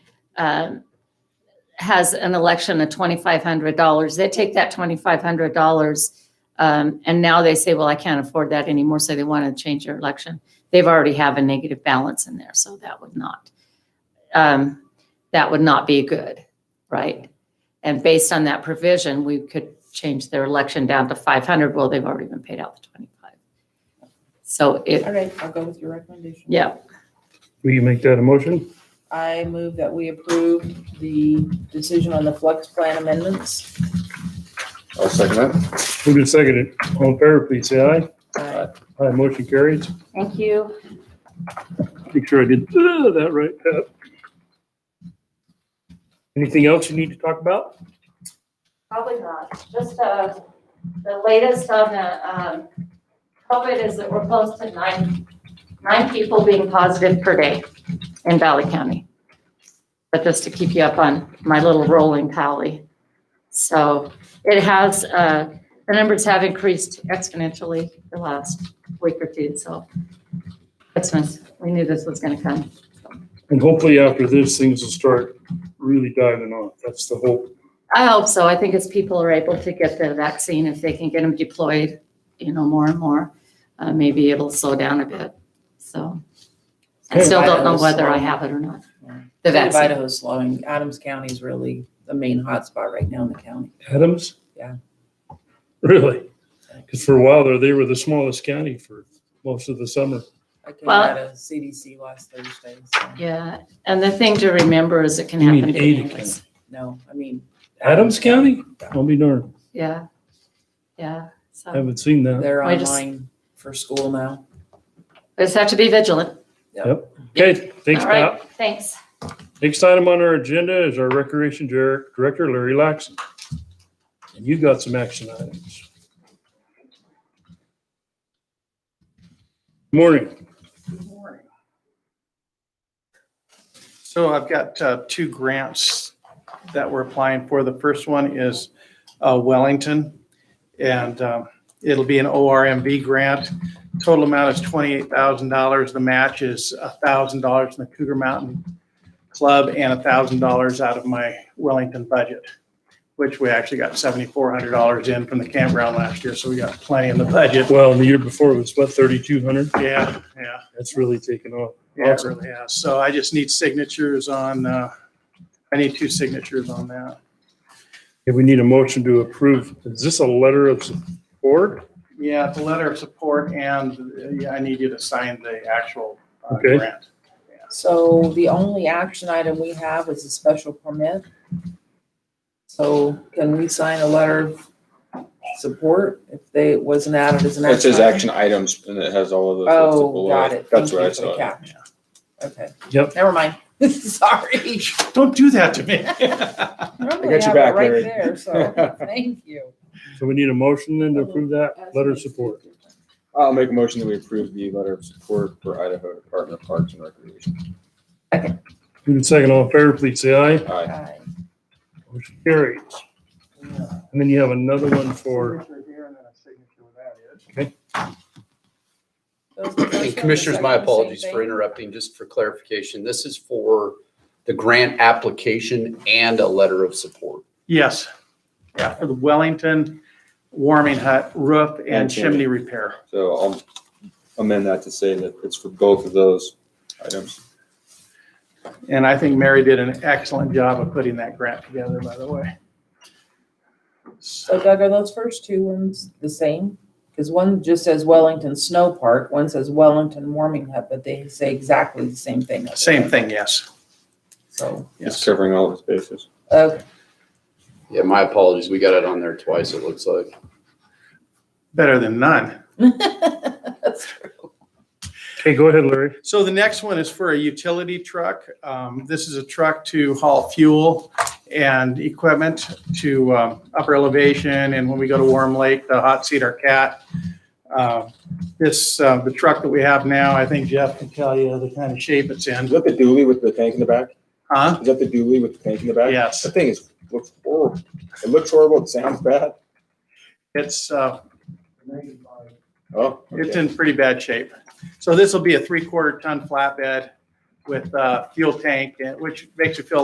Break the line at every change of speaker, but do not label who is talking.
um, has an election of twenty-five hundred dollars, they take that twenty-five hundred dollars, um, and now they say, well, I can't afford that anymore, so they want to change their election. They've already have a negative balance in there, so that would not, um, that would not be good, right? And based on that provision, we could change their election down to five hundred, well, they've already been paid out the twenty-five. So it,
All right, I'll go with your recommendation.
yeah,
Will you make that a motion?
I move that we approve the decision on the flex plan amendments.
I'll second that.
Who can second it? All in favor, please say aye.
Uh,
Aye, motion carries.
thank you.
Make sure I did uh, that right. Uh, Anything else you need to talk about?
Probably not, just, uh, the latest on the, um, COVID is that we're close to nine, nine people being positive per day in Valley County. But just to keep you up on my little rolling tally. So it has, uh, the numbers have increased exponentially the last week or two, so. That's nice, we knew this was gonna come.
And hopefully after this, things will start really diving off. That's the hope.
I hope so. I think as people are able to get the vaccine, if they can get them deployed, you know, more and more, uh, maybe it'll slow down a bit. So I
Okay.
still don't know whether I have it or not. The
State of
vaccine.
Idaho's slowing. Adams County is really the main hotspot right now in the county.
Adams?
Yeah.
Really? Because for a while there, they were the smallest county for most of the summer.
I came
Well-
out of CDC last Thursday, so,
Yeah. And the thing to remember is it can
You mean
happen to
Ada
any of us.
no, I mean.
Adams County? I'll be darned.
Yeah. Yeah. So
Haven't seen that.
They're
I just-
online for school now.
we just have to be vigilant.
Okay, thanks,
All right.
Pat.
Thanks.
Next item on our agenda is our Recreation Dir- Director, Larry Laxon. And you got some action items. Morning.
So I've got uh, two grants that we're applying for. The first one is uh, Wellington, and um, it'll be an ORMV grant. Total amount is $28,000. The match is $1,000 from the Cougar Mountain Club and $1,000 out of my Wellington budget, which we actually got $7,400 in from the campground last year, so we got plenty in the budget.
Well, the year before it was what, thirty-two hundred?
Yeah, yeah.
That's really taken off.
Yeah, it
Awesome.
really has. So I just need signatures on, uh, I need two signatures on that.
Okay, we need a motion to approve. Is this a letter of support?
Yeah, it's a letter of support and uh, yeah, I need you to sign the actual uh,
Okay.
grant.
So the only action item we have is a special permit. So can we sign a letter of support if they, it wasn't added as an action?
It says
item?
action items and it has all of those. that's
Oh,
below
got it.
That's
Thank
what
you
I
for the
saw.
catch. Okay,
Yep.
never mind. Sorry.
Don't do that to me.
Normally
your
have it
back,
right
Larry.
there, so Thank you.
So we need a motion then to approve that letter of support.
I'll make a motion that we approve the letter of support for Idaho Department of Parks and Recreation.
Move in second, all in favor, please say aye.
Aye.
Aye.
Motion carries. And then you have another one for,
That was the first one, the
And Commissioners, my
second one, same
apologies for
thing.
interrupting, just for clarification. This is for the grant application and a letter of support.
Yes, yeah, for the Wellington warming hut roof and
And chimney.
chimney repair.
So I'll amend that to say that it's for both of those items.
And I think Mary did an excellent job of putting that grant together, by the way.
So Doug, are those first two ones the same? Because one just says Wellington Snow Park, one says Wellington Warming Hut, but they say exactly the same thing.
Same thing, yes.
So,
It's
Yes.
covering all of its bases.
uh,
Yeah, my apologies. We got it on there twice, it looks like.
Better than none.
that's true.
okay, go ahead, Larry.
So the next one is for a utility truck. Um, This is a truck to haul fuel and equipment to um, upper elevation, and when we go to Warm Lake, the hot seat our cat. Uh, This, uh, the truck that we have now, I think Jeff can tell you the kind of shape it's
Is
in.
that the dually with the tank in the back?
Huh?
Is that the dually with the tank in the back?
Yes.
That thing is, looks horrible. It looks horrible. It sounds bad.
It's, uh,
Oh.
it's
okay.
in pretty bad shape. So this will be a three-quarter ton flatbed with uh, fuel tank, and- which makes you feel